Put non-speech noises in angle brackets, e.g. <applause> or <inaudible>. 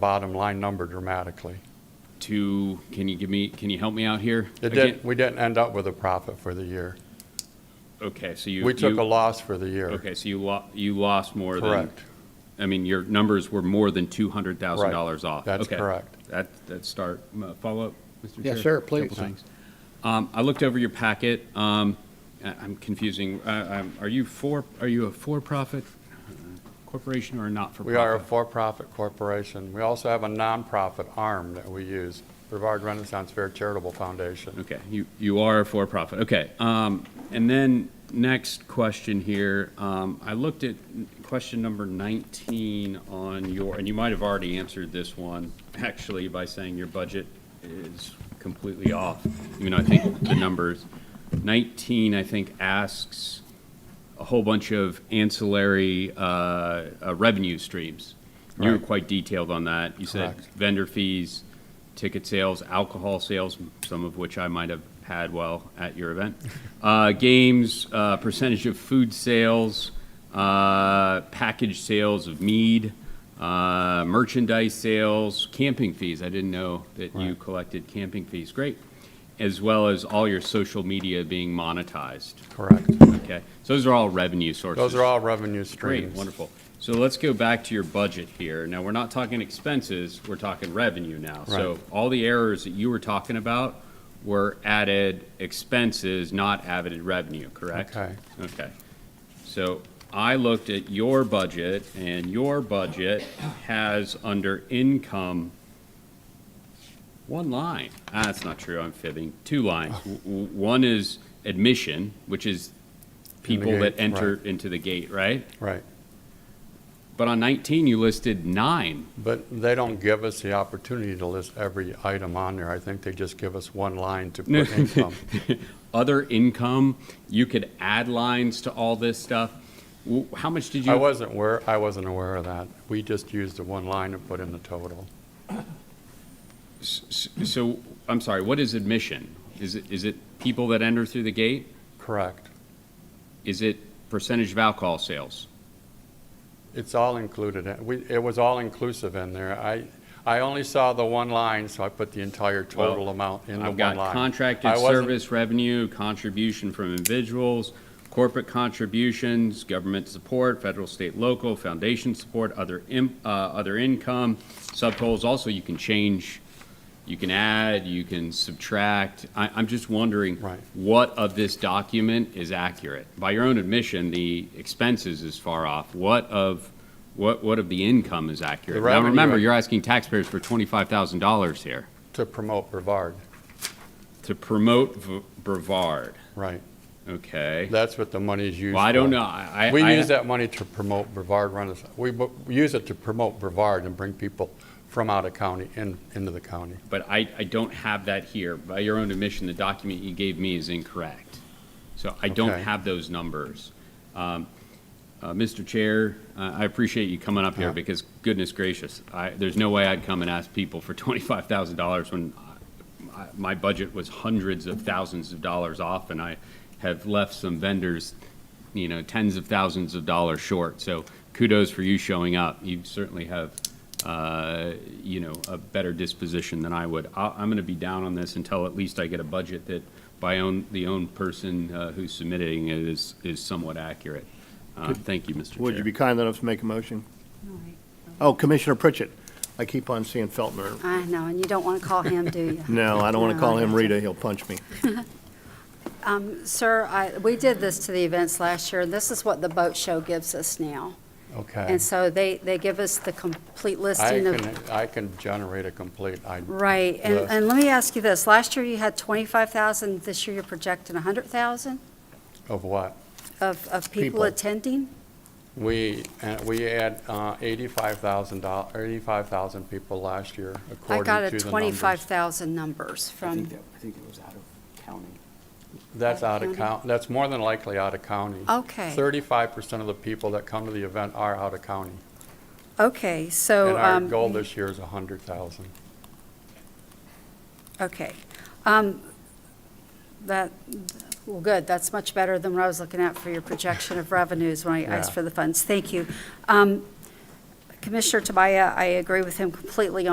bottom line number dramatically. to, can you give me, can you help me out here? It Again- didn't, we didn't end up with a profit for the year. Okay, so you. We took you- a loss for the year. Okay, so you lo, you lost more than. Correct. I mean, your numbers were more than two hundred thousand dollars off. That's Okay. correct. That, that start, uh, follow up, Mr. Chair? Yes, sir, Couple please. things. Um, I looked over your packet, um, I- I'm confusing, uh, um, are you for, are you a for-profit uh, corporation or a not-for-profit? We are a for-profit corporation. We also have a nonprofit arm that we use, Brevard Renaissance Fair Charitable Foundation. Okay, you, you are a for-profit, okay. Um, and then, next question here, um, I looked at question number nineteen on your, and you might have already answered this one, actually, by saying your budget is completely off, even though I think the numbers, nineteen, I think, asks a whole bunch of ancillary, uh, uh, revenue streams. You were Right. quite detailed on that, you said Correct. vendor fees, ticket sales, alcohol sales, some of which I might have had while at your <laughs> event, uh, games, uh, percentage of food sales, uh, package sales of mead, uh, merchandise sales, camping fees. I didn't know that you Right. collected camping fees. Great. As well as all your social media being monetized. Correct. Okay. So those are all revenue sources. Those are all revenue streams. Great, wonderful. So let's go back to your budget here. Now, we're not talking expenses, we're talking revenue now. So Right. all the errors that you were talking about were added expenses, not added revenue, correct? Okay. Okay. So I looked at your budget, and your budget has under income one line. Ah, that's not true, I'm fibbing. Two lines. Oh. W- w- One is admission, which is people gate, that enter into the gate, right? Right. But on 19, you listed nine. But they don't give us the opportunity to list every item on there. I think they just give us one line to <laughs> put income. Other income, you could add lines to all this stuff. W- How much did you? I wasn't aware, I wasn't aware of that. We just used the one line and put in the total. s- s- So, I'm sorry, what is admission? Is it, is it people that enter through the gate? Correct. Is it percentage of alcohol sales? It's all included. We, it was all inclusive in there. I, I only saw the one line, so I put the entire total Well, amount in the I've one got line. contracted I wasn't- service revenue, contribution from individuals, corporate contributions, government support, federal, state, local, foundation support, other, im- uh, other income, subtotals. Also, you can change, you can add, you can subtract. I, I'm just wondering. Right. What of this document is accurate? By your own admission, the expenses is far off. What of, what, what of the income is accurate? Now, revenue- remember, you're asking taxpayers for twenty-five thousand dollars here To promote Brevard, to promote v- Brevard. right. Okay. That's what the money is used for. Well, I don't know. I, I- We I- use that money to promote Brevard Renaissance. We bu- we use it to promote Brevard and bring people from out of county in, into the county. But I, I don't have that here. By your own admission, the document you gave me is incorrect. So I don't Okay. have those numbers. Um, uh, Mr. Chair, uh, I appreciate you coming up here Yeah. because goodness gracious, I, there's no way I'd come and ask people for <laughs> twenty-five thousand dollars when uh, I- I- my budget was hundreds of thousands of dollars off and I have left some vendors, you know, tens of thousands of dollars short. So kudos for you showing up. You certainly have, uh, you know, a better disposition than I would. I, I'm going to be down on this until at least I get a budget that by own, the own person uh, who's submitting it is, is somewhat accurate. Uh, Thank you, Mr. Would you Chair. be kind enough to make a motion? All right. Oh, Commissioner Pritchett. I keep on seeing Feltner. I know, and you don't want to call him, do you? <laughs> No, I don't want to No, call him gotcha. Rita, he'll punch me. Um, Sir, I- we did this to the events last year, and this is what the boat show gives us now. Okay. And so they, they give us the complete I listing of, can, I can generate a complete, I, right. And, Yes. and let me ask you this, last year you had 25,000, this year you're projecting 100,000 of what? of, of People. people attending? We, uh, we had uh, $85,000, or 85,000 people last year, I according to the got a numbers. 25,000 numbers I from, think that, I think it was out of county. That's out of County. count, that's more than likely out of county. okay, 35% of the people that come to the event are out of county. okay, so. And our um, goal this year is 100,000. Okay. Um, That, well, good, that's much better than what I was looking at for your projection of revenues when I asked Yeah. for the funds. Thank you. Um, Commissioner Tabaya, I agree with him completely on.